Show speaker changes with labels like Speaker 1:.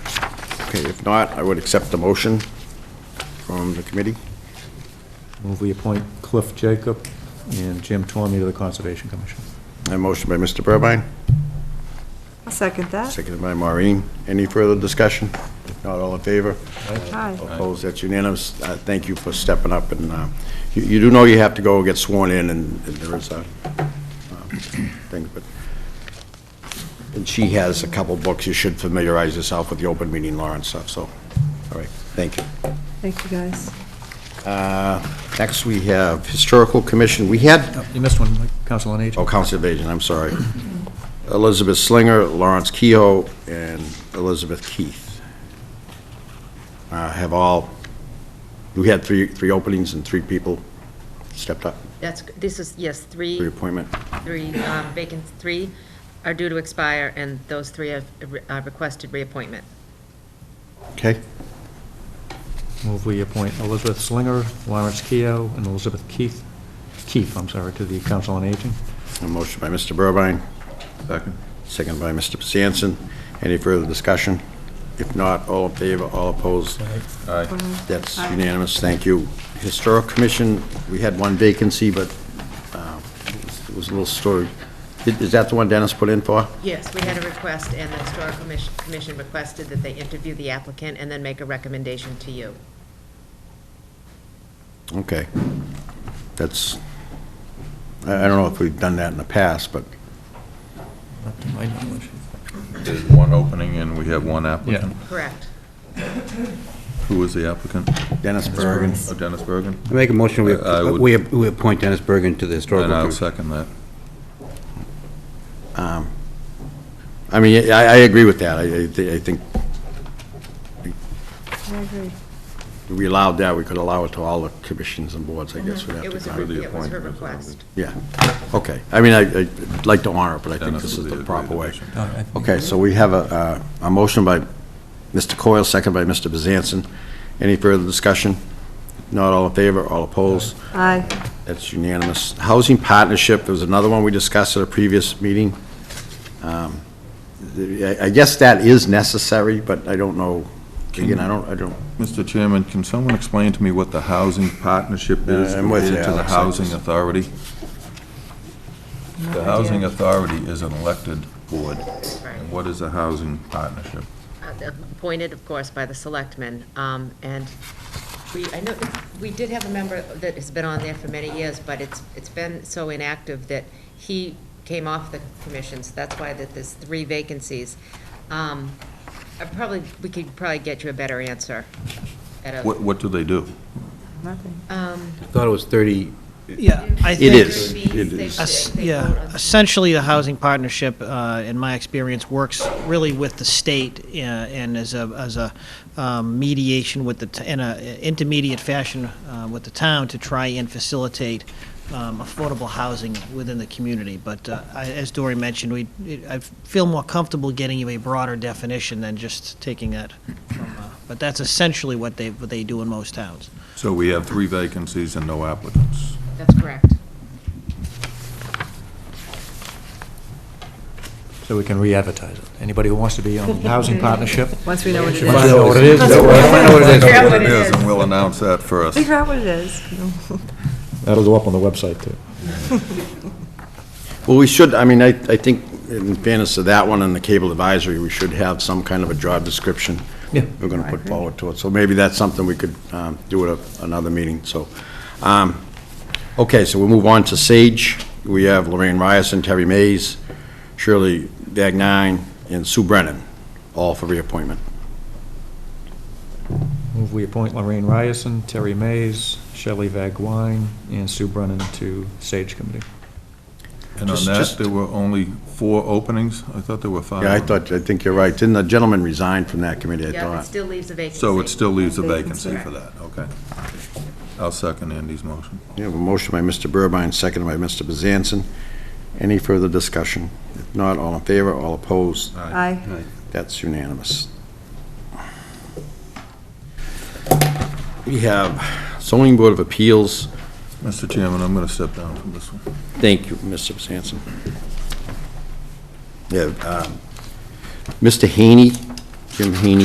Speaker 1: Okay, if not, I would accept the motion from the committee.
Speaker 2: Move we appoint Cliff Jacob and Jim Torme to the Conservation Commission.
Speaker 1: A motion by Mr. Burbine,
Speaker 3: I'll second that.
Speaker 1: seconded by Maureen. Any further discussion? Not all in favor?
Speaker 3: Aye.
Speaker 1: Opposed, that's unanimous. Uh, Thank you for stepping up, and uh, you you do know you have to go get sworn in, and and there is a uh, thing, but, and she has a couple books, you should familiarize yourself with the open meeting law and stuff, so, all right, thank you.
Speaker 3: Thank you, guys.
Speaker 1: Next, we have Historical Commission. We had
Speaker 2: Oh, You missed one, Mike, Council on
Speaker 1: Oh,
Speaker 2: Aging.
Speaker 1: Council of Aging, I'm sorry. Elizabeth Slinger, Lawrence Kehoe, and Elizabeth Keith uh, have all, we had three, three openings and three people stepped up
Speaker 4: That's, this is, yes,
Speaker 1: for
Speaker 4: three,
Speaker 1: appointment.
Speaker 4: three um, vacant, three are due to expire, and those three are are uh, requested reappointment.
Speaker 1: Okay,
Speaker 2: Move we appoint Elizabeth Slinger, Lawrence Keough, and Elizabeth Keith, Keefe, I'm sorry, to the Council on Aging.
Speaker 1: a motion by Mr. Burbine,
Speaker 5: Second.
Speaker 1: second by Mr. Sampson. Any further discussion? If not, all in favor, all opposed?
Speaker 5: Aye.
Speaker 1: That's unanimous, thank you. Historic Commission, we had one vacancy, but uh, it was a little story. Is is that the one Dennis put in for?
Speaker 4: Yes, we had a request, and the Historical Commission- Commission requested that they interview the applicant and then make a recommendation to you.
Speaker 1: Okay. That's, I I don't know if we've done that in the past, but,
Speaker 2: Not to my knowledge.
Speaker 5: There's one opening and we have one applicant.
Speaker 4: Correct.
Speaker 5: Who is the applicant?
Speaker 1: Dennis Bergen.
Speaker 5: Oh, Dennis Bergen?
Speaker 6: I make a motion, we-
Speaker 5: I- I would-
Speaker 6: we we appoint Dennis Bergen to the
Speaker 5: And
Speaker 6: Historical
Speaker 5: I'll
Speaker 6: Commission.
Speaker 5: second that.
Speaker 1: I mean, I, I agree with that. I, I thi- I think
Speaker 3: I agree.
Speaker 1: if we allowed that, we could allow it to all the commissions and boards, I guess. we'd have
Speaker 4: Mm-hmm. It
Speaker 1: to
Speaker 4: was, a
Speaker 1: find-
Speaker 5: the
Speaker 4: re- it was her
Speaker 5: appointment, isn't it?
Speaker 4: request.
Speaker 1: Yeah, okay. I mean, I- I'd like to honor it, but I think
Speaker 5: Dennis
Speaker 1: this
Speaker 5: will
Speaker 1: is
Speaker 5: be
Speaker 1: the proper way.
Speaker 5: division.
Speaker 1: Okay, so we have a, uh, a a motion by Mr. Coyle, second by Mr. Bezanson. Any further discussion? Not all in favor, all opposed?
Speaker 3: Aye.
Speaker 1: That's unanimous. Housing Partnership, there was another one we discussed at a previous meeting. Um, the- I I guess that is necessary, but I don't know, again, I don't, I don't,
Speaker 5: Mr. Chairman, can someone explain to me what the housing partnership is
Speaker 1: Uh, I'm with you,
Speaker 5: related to the
Speaker 1: Alex, I
Speaker 5: housing
Speaker 1: just-
Speaker 5: authority? The housing authority is an elected board.
Speaker 4: Right.
Speaker 5: And what is a housing partnership?
Speaker 4: Uh, appointed, of course, by the selectmen, um, and we, I know, we did have a member that has been on there for many years, but it's, it's been so inactive that he came off the commission, so that's why that there's three vacancies. Um, I probably, we could probably get you a better answer at a.
Speaker 5: What, what do they do?
Speaker 3: Nothing.
Speaker 6: I thought it was 30,
Speaker 7: Yeah, I
Speaker 1: It
Speaker 7: think.
Speaker 1: is.
Speaker 4: Fees,
Speaker 1: It
Speaker 4: they-
Speaker 1: is.
Speaker 7: es-
Speaker 4: they vote on-
Speaker 7: Yeah, essentially, the housing partnership, uh, in my experience, works really with the state uh, and as a, as a um, mediation with the, t- in a intermediate fashion uh, with the town to try and facilitate um, affordable housing within the community. But uh, I- as Dory mentioned, we, it- I feel more comfortable getting you a broader definition than just taking that from, uh, but that's essentially what they, what they do in most towns.
Speaker 5: So we have three vacancies and no applicants.
Speaker 4: That's correct.
Speaker 2: So we can re-advertise it. Anybody who wants to be on the Housing Partnership,
Speaker 3: Once we know what it
Speaker 2: should find out
Speaker 3: is.
Speaker 2: what it is.
Speaker 4: Figure out what
Speaker 5: It
Speaker 4: it
Speaker 5: is,
Speaker 4: is.
Speaker 5: and we'll announce that first.
Speaker 3: Figure out what it is.
Speaker 2: That'll go up on the website, too.
Speaker 1: well, we should, I mean, I, I think in fairness to that one and the cable advisory, we should have some kind of a job description.
Speaker 2: Yeah.
Speaker 1: We're going to put forward to it, so maybe that's something we could um, do at a- another meeting, so. um, Okay, so we'll move on to Sage. We have Lorraine Ryerson, Terry Mays, Shirley Dagnine, and Sue Brennan, all for reappointment.
Speaker 2: Move we appoint Lorraine Ryerson, Terry Mays, Shelley Vagwine, and Sue Brennan to Sage Committee.
Speaker 5: And on
Speaker 1: Just-
Speaker 5: that,
Speaker 1: just-
Speaker 5: there were only four openings? I thought there were five.
Speaker 1: Yeah, I thought, I think you're right. Didn't the gentleman resign from that committee, I
Speaker 4: Yeah, it
Speaker 1: thought?
Speaker 4: still leaves a vacancy.
Speaker 5: So it still leaves a
Speaker 3: Vacancy.
Speaker 5: vacancy for that, okay. I'll second Andy's motion.
Speaker 1: We have a motion by Mr. Burbine, seconded by Mr. Bezanson. Any further discussion? If not, all in favor, all opposed?
Speaker 3: Aye.
Speaker 1: That's unanimous. We have zoning board of appeals.
Speaker 5: Mr. Chairman, I'm going to step down from this one.
Speaker 1: Thank you, Mr. Sanson. Yeah, um, Mr. Haney, Jim Haney